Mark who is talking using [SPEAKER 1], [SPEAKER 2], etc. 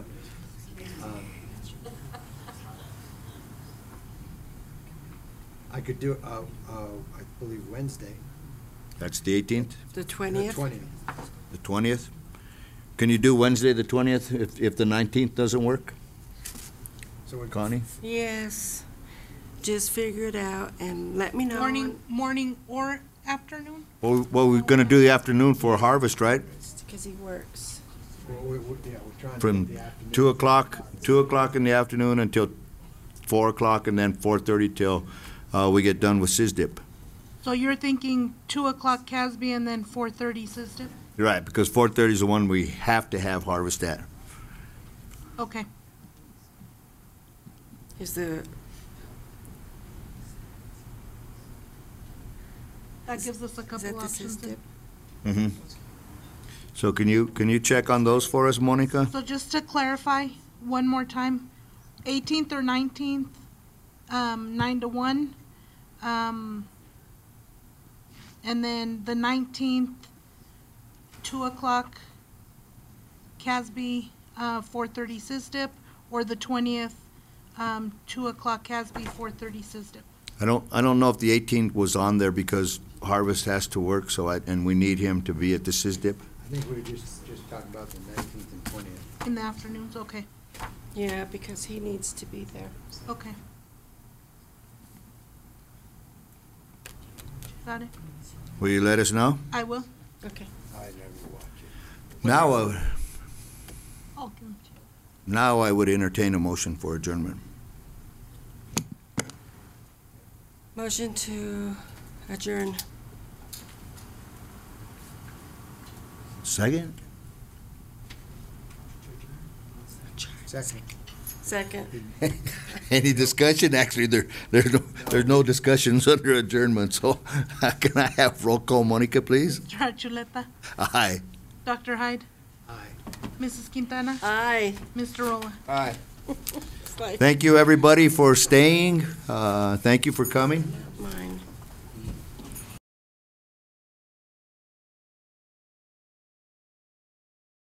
[SPEAKER 1] Um, I could do, it, uh, uh, I believe Wednesday.
[SPEAKER 2] That's the 18th,
[SPEAKER 3] The
[SPEAKER 1] the
[SPEAKER 3] 20th?
[SPEAKER 1] Twentieth.
[SPEAKER 2] the 20th? Can you do Wednesday, the 20th, if, if the 19th doesn't work?
[SPEAKER 1] So we-
[SPEAKER 2] Connie?
[SPEAKER 3] Yes. Just figure it out and let me know.
[SPEAKER 4] Morning, morning or afternoon?
[SPEAKER 2] Well, well, we're gonna do the afternoon for harvest, right?
[SPEAKER 3] Because he works.
[SPEAKER 1] Well, we- we- yeah, we're trying to
[SPEAKER 2] From
[SPEAKER 1] get the afternoon.
[SPEAKER 2] 2 o'clock, 2 o'clock in the afternoon until 4 o'clock, and then 4:30 till uh, we get done with SISDIP.
[SPEAKER 4] So you're thinking two o'clock Casby and then four thirty Siston?
[SPEAKER 2] Right, because 4:30 is the one we have to have harvest at.
[SPEAKER 4] Okay,
[SPEAKER 3] Is the,
[SPEAKER 4] that gives us a
[SPEAKER 3] is that
[SPEAKER 4] couple
[SPEAKER 3] the
[SPEAKER 4] options.
[SPEAKER 3] system?
[SPEAKER 4] then.
[SPEAKER 2] Mm-hmm. So can you, can you check on those for us, Monica?
[SPEAKER 4] So just to clarify, one more time, eighteenth or nineteenth, um, nine to one. Um, and then the nineteenth, two o'clock, Casby, uh, four thirty Siston, or the twentieth, um, two o'clock Casby, four thirty Siston.
[SPEAKER 2] I don't, I don't know if the 18th was on there because Harvest has to work, so I, and we need him to be at the SISDIP.
[SPEAKER 1] I think we were just, just talking about the nineteenth and twentieth.
[SPEAKER 4] In the afternoons, okay,
[SPEAKER 3] Yeah, because he needs to be there.
[SPEAKER 4] okay. Got it,
[SPEAKER 2] Will you let us know?
[SPEAKER 4] I will,
[SPEAKER 3] Okay.
[SPEAKER 1] I never watch it.
[SPEAKER 2] Now, I-
[SPEAKER 4] I'll give 'em to you.
[SPEAKER 2] now I would entertain a motion for adjournment.
[SPEAKER 3] Motion to adjourn.
[SPEAKER 2] Second?
[SPEAKER 1] Second.
[SPEAKER 3] Second.
[SPEAKER 2] Any discussion? Actually, there, there's no, there's no discussions under adjournment, so can I have roll call, Monica, please?
[SPEAKER 4] Mr. Achuleta,
[SPEAKER 2] Aye.
[SPEAKER 4] Dr. Hyde,
[SPEAKER 1] Aye.
[SPEAKER 4] Mrs. Quintana,
[SPEAKER 3] Aye.
[SPEAKER 4] Mr. Rolla.
[SPEAKER 1] Aye.
[SPEAKER 3] It's like-
[SPEAKER 2] Thank you, everybody, for staying. Uh, Thank you for coming.